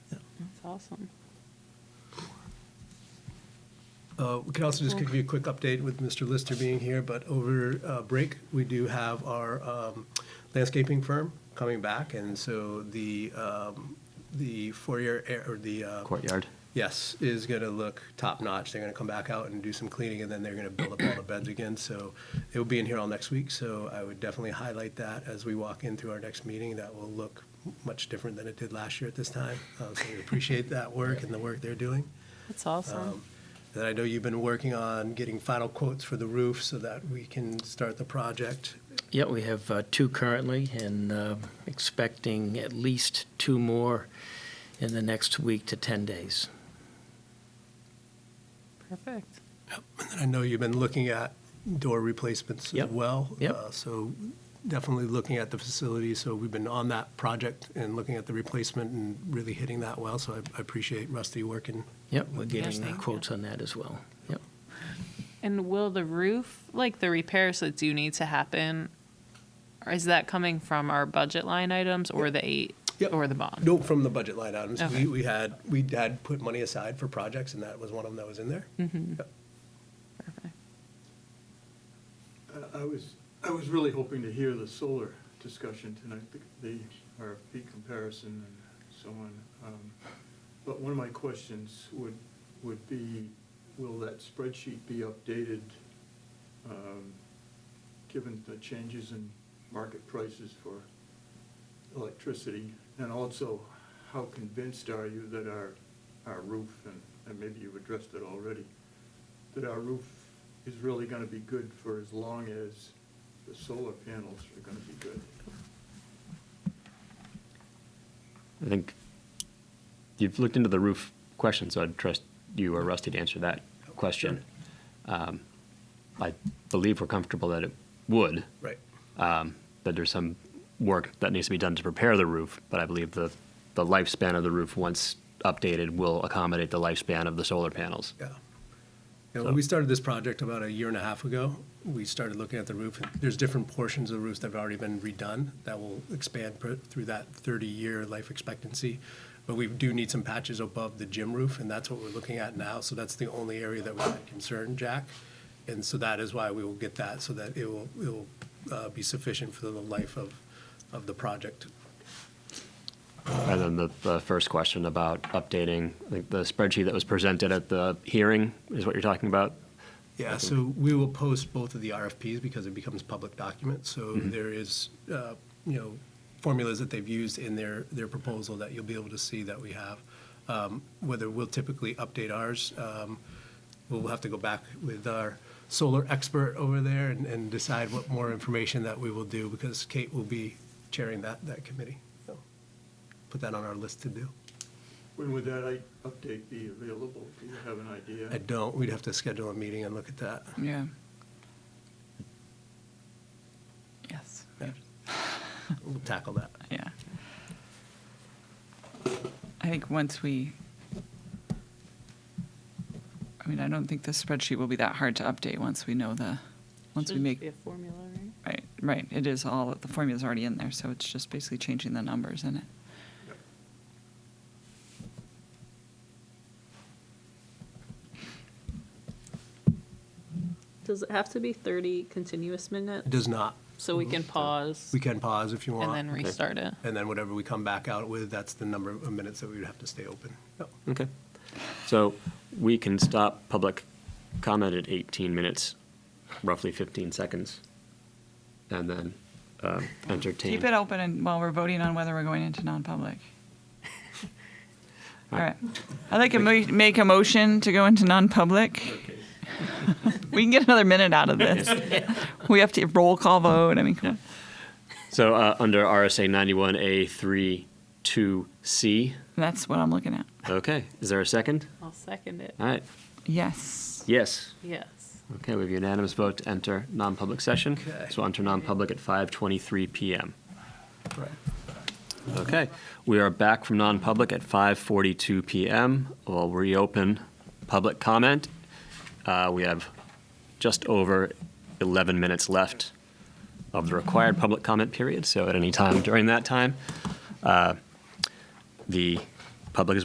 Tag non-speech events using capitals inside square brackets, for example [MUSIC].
awesome. Uh, We can also just give you a quick update with Mr. Lister being here, but over uh, break, we do have our um, landscaping firm coming back, and so the, um, the foyer, air- or the. uh, courtyard. Yes, is going to look top-notch. They're going to come back out and do some cleaning, and then they're going to build up all the beds again. So it will be in here all next week, so I would definitely highlight that as we walk into our next meeting. That will look much different than it did last year at this time. Uh, So we appreciate that work and the work they're doing. That's awesome. Then Um, I know you've been working on getting final quotes for the roof so that we can start the project. Yeah, we have uh, two currently and uh, expecting at least two more in the next week to 10 days. Perfect. And I know you've been looking at door replacements as Yep. well. Yep. Uh, So definitely looking at the facility. So we've been on that project and looking at the replacement and really hitting that well. So I- I appreciate Rusty working. Yep, we're Yes, getting uh, thank you. quotes on that as well. Yep. And will the roof, like the repairs that do need to happen, is that coming from our budget line items or the eight Yep. or the bond? No, from the budget line items, we, Okay. we had, we had put money aside for projects and that was one of them that was in there. Yep. Perfect. I- I was, I was really hoping to hear the solar discussion tonight, the- the RFP comparison and so on. Um, But one of my questions would, would be, will that spreadsheet be updated, um, given the changes in market prices for electricity? And also, how convinced are you that our, our roof, and, and maybe you've addressed it already, that our roof is really gonna be good for as long as the solar panels are gonna be good. I think you've looked into the roof question, so I'd trust you or Rusty to answer that question. Um, I believe we're comfortable that it would, Right. um, that there's some work that needs to be done to prepare the roof, but I believe the, the lifespan of the roof, once updated, will accommodate the lifespan of the solar panels. Yeah. Yeah, when So- we started this project about a year and a half ago, we started looking at the roof. There's different portions of the roofs that have already been redone that will expand per- through that 30-year life expectancy. But we do need some patches above the gym roof, and that's what we're looking at now. So that's the only area that we're concerned, Jack. And so that is why we will get that, so that it will, it will uh, be sufficient for the life of, of the project. And then the, the first question about updating, I think the spreadsheet that was presented at the hearing is what you're talking about? Yeah, so we will post both of the RFPs because it becomes public document. So there is, uh, you know, formulas that they've used in their, their proposal that you'll be able to see that we have. Um, Whether we'll typically update ours, um, we'll have to go back with our solar expert over there and, and decide what more information that we will do because Kate will be chairing that, that committee. So Put that on our list to do. When would that i- update be available? Do you have an idea? I don't, we'd have to schedule a meeting and look at that. Yeah. Yes, We'll tackle that. yeah. I think once we, I mean, I don't think the spreadsheet will be that hard to update once we know the, once we Should be make, a formula, right? right, right, it is all, the formula's already in there, so it's just basically changing the numbers in it. Does it have to be 30 continuous minutes? It does not So we can pause We can pause if you want. and then restart it. And then whatever we come back out with, that's the number of minutes that we would have to stay open. Yep. Okay. So we can stop public comment at 18 minutes, roughly 15 seconds, and then um, entertain. Keep it open and while we're voting on whether we're going into non-public. All right. I'd like to mo- make a motion to go into non-public. [LAUGHS] We can get another minute out of this. We have to roll call vote. I mean, come on. So uh, under RSA 91A 32C. That's what I'm looking at. Okay. Is there a second? I'll second it. All right. Yes. Yes. Yes. Okay. We have unanimous vote to enter non-public session. Okay. So enter non-public at 5:23 p.m. Right. Okay, we are back from non-public at 5:42 PM. We'll reopen public comment. Uh, We have just over 11 minutes left of the required public comment period, so at any time during that time, uh, the public is